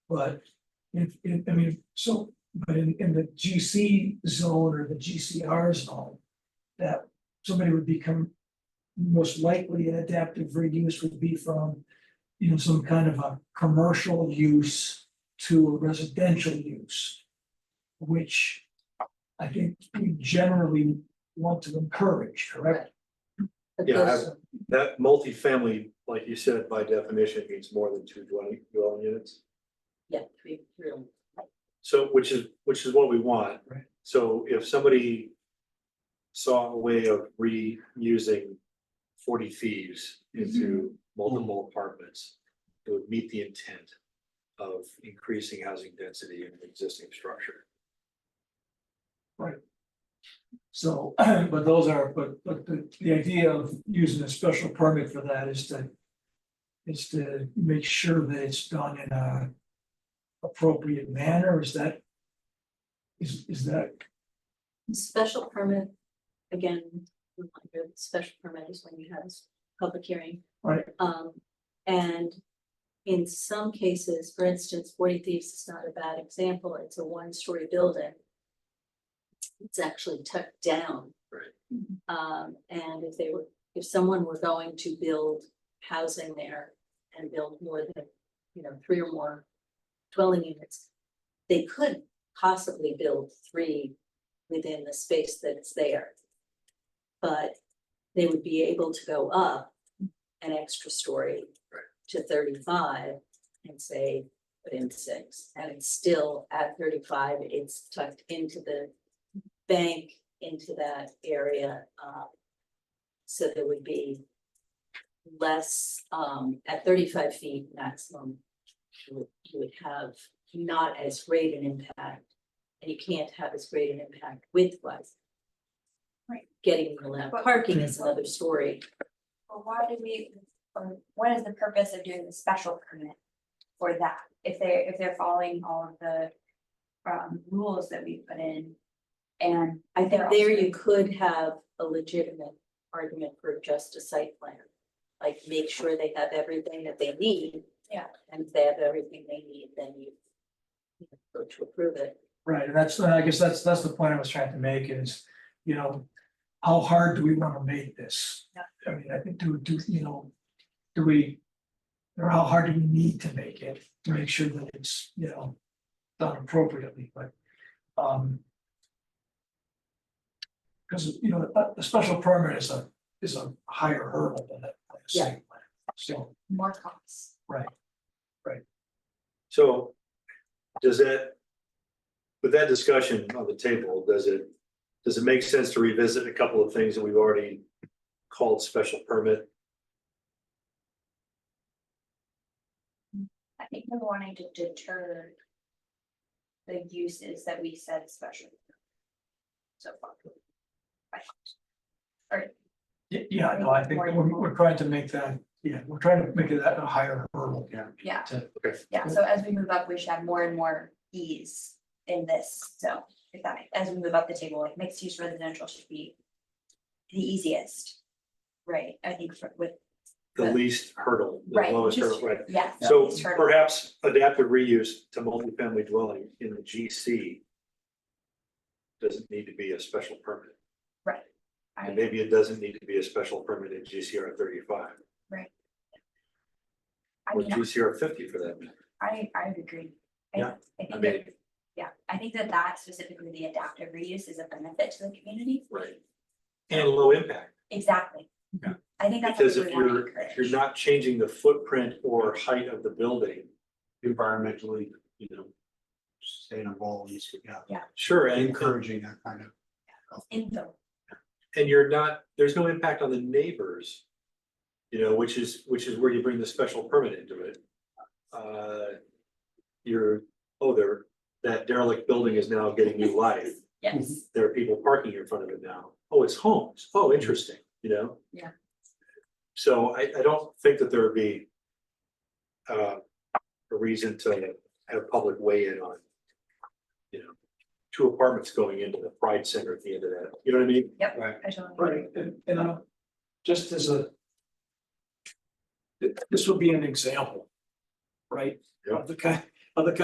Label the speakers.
Speaker 1: But if, if, I mean, so, but in, in the GC zone or the GCR zone. That somebody would become most likely an adaptive reuse would be from. You know, some kind of a commercial use to a residential use. Which I think we generally want to encourage, correct?
Speaker 2: But
Speaker 3: Yeah, I
Speaker 2: those-
Speaker 3: That multifamily, like you said, by definition means more than two dwelling, dwelling units.
Speaker 2: Yeah, three, three. oh of them.
Speaker 3: So, which is, which is what we want.
Speaker 1: Right.
Speaker 3: So if somebody saw a way of reusing forty thieves into multiple apartments, it would meet the intent of increasing housing density in the existing structure.
Speaker 1: So, but those are, but, but the, the idea of using a special permit for that is to. Is to make sure that it's done in a. Appropriate manner, is that? Is, is that,
Speaker 2: Special permit, again, reminder, that special permit is when you have a public hearing.
Speaker 1: Right.
Speaker 2: Um, and in some cases, for instance, Forty Thieves is not a bad example, it's a one-story building. It's actually tucked down.
Speaker 3: Right.
Speaker 2: Um, and if they were, if someone were going to build housing there and build more than, you know, three or more dwelling units, they could possibly build three within the space that's there. But they would be able to go up an extra story
Speaker 3: Right.
Speaker 2: to thirty-five and say, put in six, and it's still at thirty-five, it's tucked into the bank, into that area, um, so there would be less, um, at thirty-five feet maximum, you would, you would have not as great an impact and you can't have as great an impact width wise.
Speaker 4: Right.
Speaker 2: Getting allowed
Speaker 4: But-
Speaker 2: parking is another story.
Speaker 4: Well, why do we, or what is the purpose of doing the special permit for that? If they, if they're following all of the um rules that we put in. And
Speaker 2: I think
Speaker 4: They're
Speaker 2: there
Speaker 4: also-
Speaker 2: you could have a legitimate argument for just a site plan. Like make sure they have everything that they need.
Speaker 4: Yeah.
Speaker 2: And if they have everything they need, then you you know, go to approve it.
Speaker 1: right, and that's, I guess that's, that's the point I was trying to make is, you know. How hard do we wanna make this? I mean, I think do, do, you know, do we? Or how hard do we need to make it to make sure that it's, you know, done appropriately, but, um. Cause, you know, a, a special permit is a, is a higher hurdle than a like a
Speaker 2: Yeah.
Speaker 1: site plan, so,
Speaker 4: more costs.
Speaker 3: So does that, with that discussion on the table, does it, does it make sense to revisit a couple of things that we've already called special permit?
Speaker 4: I think we're wanting to deter. The uses that we said special. So far.
Speaker 1: y- yeah, no, I think we're, we're trying to make that, yeah, we're trying to make it that a higher hurdle. Yeah.
Speaker 4: Yeah,
Speaker 3: Okay.
Speaker 4: yeah, so as we move up, we should have more and more ease in this, so if that, as we move up the table, like mixed use residential should be. The easiest, right, I think for- with,
Speaker 3: The least hurdle, the
Speaker 4: right,
Speaker 3: lowest
Speaker 4: just,
Speaker 3: hurdle, right?
Speaker 4: yeah.
Speaker 3: So
Speaker 4: least hurdle.
Speaker 3: perhaps adaptive reuse to multifamily dwelling in the GC doesn't need to be a special permit, and
Speaker 4: I-
Speaker 3: maybe it doesn't need to be a special permit in GCR thirty-five
Speaker 4: I
Speaker 3: or
Speaker 4: mean,
Speaker 3: GCR fifty for that matter.
Speaker 4: I, I would agree. I-
Speaker 3: Yeah,
Speaker 4: I
Speaker 3: I
Speaker 4: think
Speaker 3: mean-
Speaker 4: that, yeah, I think that that specifically, the adaptive reuse is a benefit to the community.
Speaker 3: Right. And low impact.
Speaker 4: Exactly.
Speaker 3: Yeah.
Speaker 4: I think that's. what
Speaker 3: Because
Speaker 4: we
Speaker 3: if
Speaker 4: wanna
Speaker 3: you're, if
Speaker 4: encourage.
Speaker 3: you're not changing the footprint or height of the building.
Speaker 5: environmentally, you know, sustainable, and so, yeah,
Speaker 3: Sure, and,
Speaker 5: encouraging that kind of.
Speaker 4: Infill,
Speaker 3: and you're not, there's no impact on the neighbors. You know, which is, which is where you bring the special permit into it. Uh, You're, oh, there, that derelict building is now getting new life.
Speaker 4: yes,
Speaker 3: There are people parking in front of it now. Oh, it's homes. Oh, interesting, you know?
Speaker 4: Yeah.
Speaker 3: So I, I don't think that there would be uh, a reason to have public weigh in on, you know, two apartments going into the Pride Center at the end of that, you know what I mean?
Speaker 4: I totally agree.
Speaker 1: Right, and, and i just as a. th- This will be an example. Right?
Speaker 3: Yeah.
Speaker 1: Of the kind, of the kind